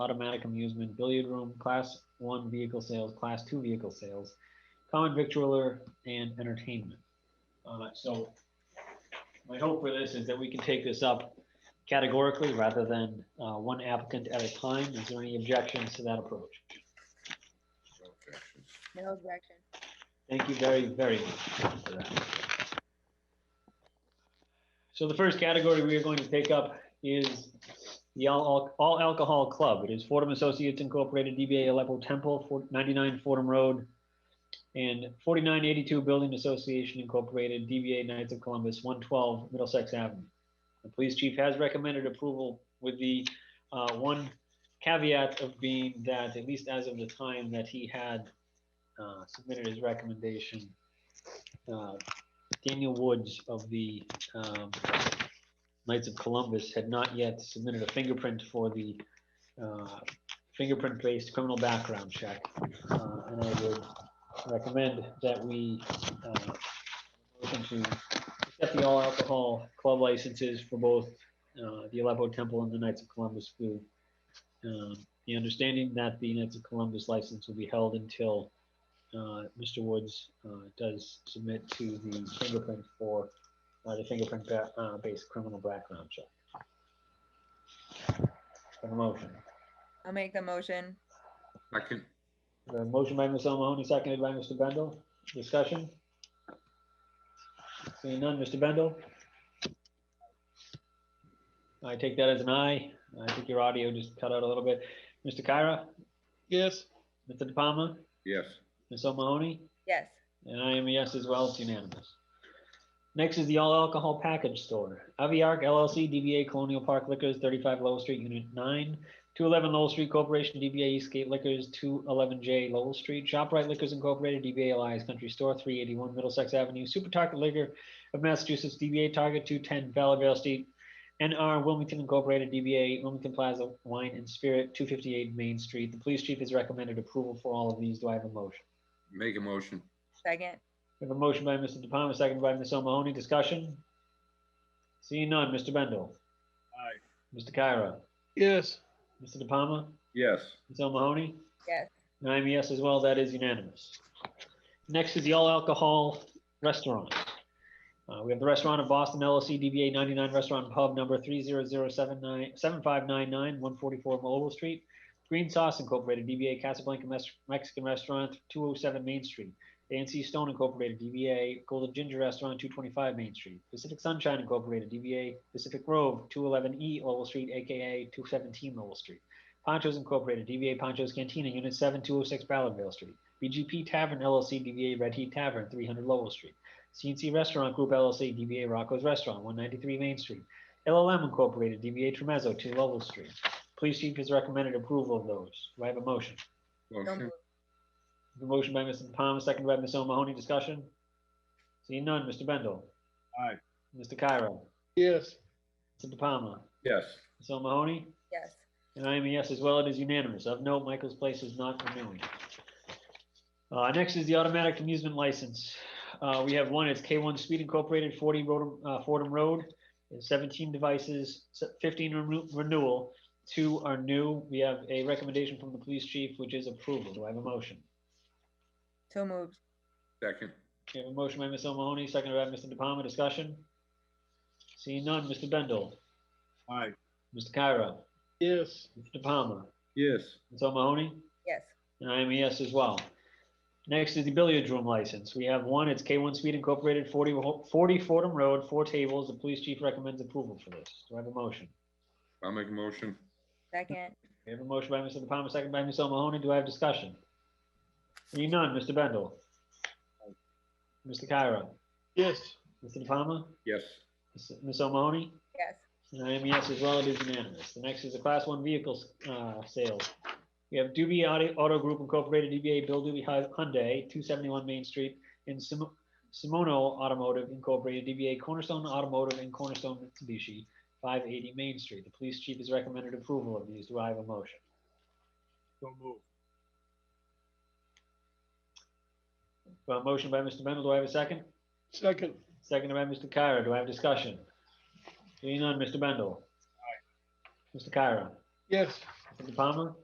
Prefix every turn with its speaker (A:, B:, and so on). A: automatic amusement, billiard room, class one vehicle sales, class two vehicle sales, common victualler, and entertainment. Uh, so my hope for this is that we can take this up categorically rather than, uh, one applicant at a time. Is there any objections to that approach?
B: objections.
C: No objection.
A: Thank you very, very much for that. So the first category we are going to take up is the all all alcohol club. It is Fordham Associates Incorporated, DBA Aleppo Temple, four- 99 Fordham Road, and 4982 Building Association Incorporated, DBA Knights of Columbus, 112 Middlesex Avenue. The police chief has recommended approval with the uh, one caveat of being that, at least as of the time that he had uh, submitted his recommendation. uh, Daniel Woods of the um, Knights of Columbus had not yet submitted a fingerprint for the uh, fingerprint-based criminal background check. Uh, And I would recommend that we uh, motion to accept the all alcohol club licenses for both uh, the Aleppo Temple and the Knights of Columbus with uh, the understanding that the Knights of Columbus license will be held until uh, Mr. Woods uh, does submit to the fingerprint for uh, the fingerprint ba- uh, based criminal background check. Have A motion.
C: I'll make the motion.
B: Second,
A: A motion by Ms. O'Mahony, seconded by Mr. Bendel. Discussion? Seeing none, Mr. Bendel? I take that as an aye. I think your audio just cut out a little bit. Mr. Kyra? Yes. Mr. De Palma?
B: yes,
A: Ms. O'Mahony?
C: Yes.
A: And I am a yes as well, it's unanimous. Next is the all alcohol package store. Aviarc LLC, DBA Colonial Park Liquors, 35 Lowell Street, Unit 9. 211 Lowell Street Corporation, DBA Eastgate Liquors, 211J Lowell Street. ShopRite Liquors Incorporated, DBA Elias Country Store, 381 Middlesex Avenue. Super Target Liquor of Massachusetts, DBA Target, 210 Valleyvale Street. NR Wilmington Incorporated, DBA Wilmington Plaza Wine and Spirit, 258 Main Street. The police chief has recommended approval for all of these. Do I have a motion?
B: make a motion,
C: Second.
A: We have a motion by Mr. De Palma, seconded by Ms. O'Mahony. Discussion? Seeing none. Mr. Bendel? Aye. Mr. Kyra?
D: yes,
A: Mr. De Palma?
B: yes,
A: Ms. O'Mahony?
C: Yes.
A: And I'm a yes as well. That is unanimous. Next is the all alcohol restaurant. Uh, we have the restaurant of Boston LLC DBA 99 Restaurant and Pub number 30079 7599 144 Mobile Street. Green Sauce Incorporated DBA Casablanca Mes- Mexican Restaurant 207 Main Street. ANC Stone Incorporated DBA Golden Ginger Restaurant 225 Main Street. Pacific Sunshine Incorporated DBA Pacific Grove 211E Lowell Street aka 217 Lowell Street. Ponchos Incorporated, DBA Ponchos Cantina, Unit oh 7, 206 Ballardvale Street. BGP Tavern LLC, DBA Red Heat Tavern, 300 Lowell Street. CNC Restaurant Group LLC, DBA Rocco's Restaurant, 193 Main Street. LLM Incorporated, DBA Tremezzo, 2 Lowell Street. Police Chief has recommended approval of those. Do I have a motion?
C: So
B: motion,
C: moved.
A: The motion by Mr. Palmer, seconded by Ms. O'Mahony. Discussion? Seeing none. Mr. Bendel?
B: Aye.
A: Mr. Cairo?
D: yes,
A: Mr. De Palma?
B: yes,
A: Ms. O'Mahony?
C: Yes.
A: And I am a yes as well. It is unanimous. Of note, Michael's Place is not renewing. Uh, next is the automatic amusement license. Uh, we have one, it's K1 Speed Incorporated, 40 Rodham, uh, Fordham Road, and 17 devices, se- 15 renew- renewal. Two are new. We have a recommendation from the police chief, which is approval. Do I have a motion?
C: So moved.
B: second,
A: We have a motion by Ms. O'Mahony, seconded by Mr. De Palma. Discussion? Seeing none. Mr. Bendel?
B: Aye.
A: Mr. Kyra?
D: yes,
A: Mr. De Palma?
B: yes,
A: Ms. O'Mahony?
C: Yes.
A: And I am a yes E as well. Next is the billiard room license. We have one, it's K1 Speed Incorporated, 40 Ho- 40 Fordham Road, four tables. The police chief recommends approval for this. Do I have a motion?
B: I'll make a motion,
C: Second.
A: We have a motion by Mr. De Palma, second by Ms. O'Mahony. Do I have discussion? Seeing none, Mr. Bendel. Mr. Kyra.
D: yes,
A: Mr. De Palma.
B: yes,
A: Ms. Ms. O'Mahony.
C: Yes.
A: And I am a yes as well, it is unanimous. The next is the class one vehicles, uh, sales. We have Doobie Auto, Auto Group Incorporated, DBA Bill Doobie Hy- Hyundai, two seventy-one Main Street, and Sim- Simono Automotive Incorporated, DBA Cornerstone Automotive and Cornerstone Mitsubishi, five eighty Main Street. The police chief has recommended approval of these. Do I have a motion? So move. motion by Mr. Mendel, do I have a second?
D: second,
A: Seconded by Mr. Kyra. Do I have discussion? Seeing none, Mr. Bendel. Mr. Kyra.
D: yes,
A: Mr. Mr. Palmer?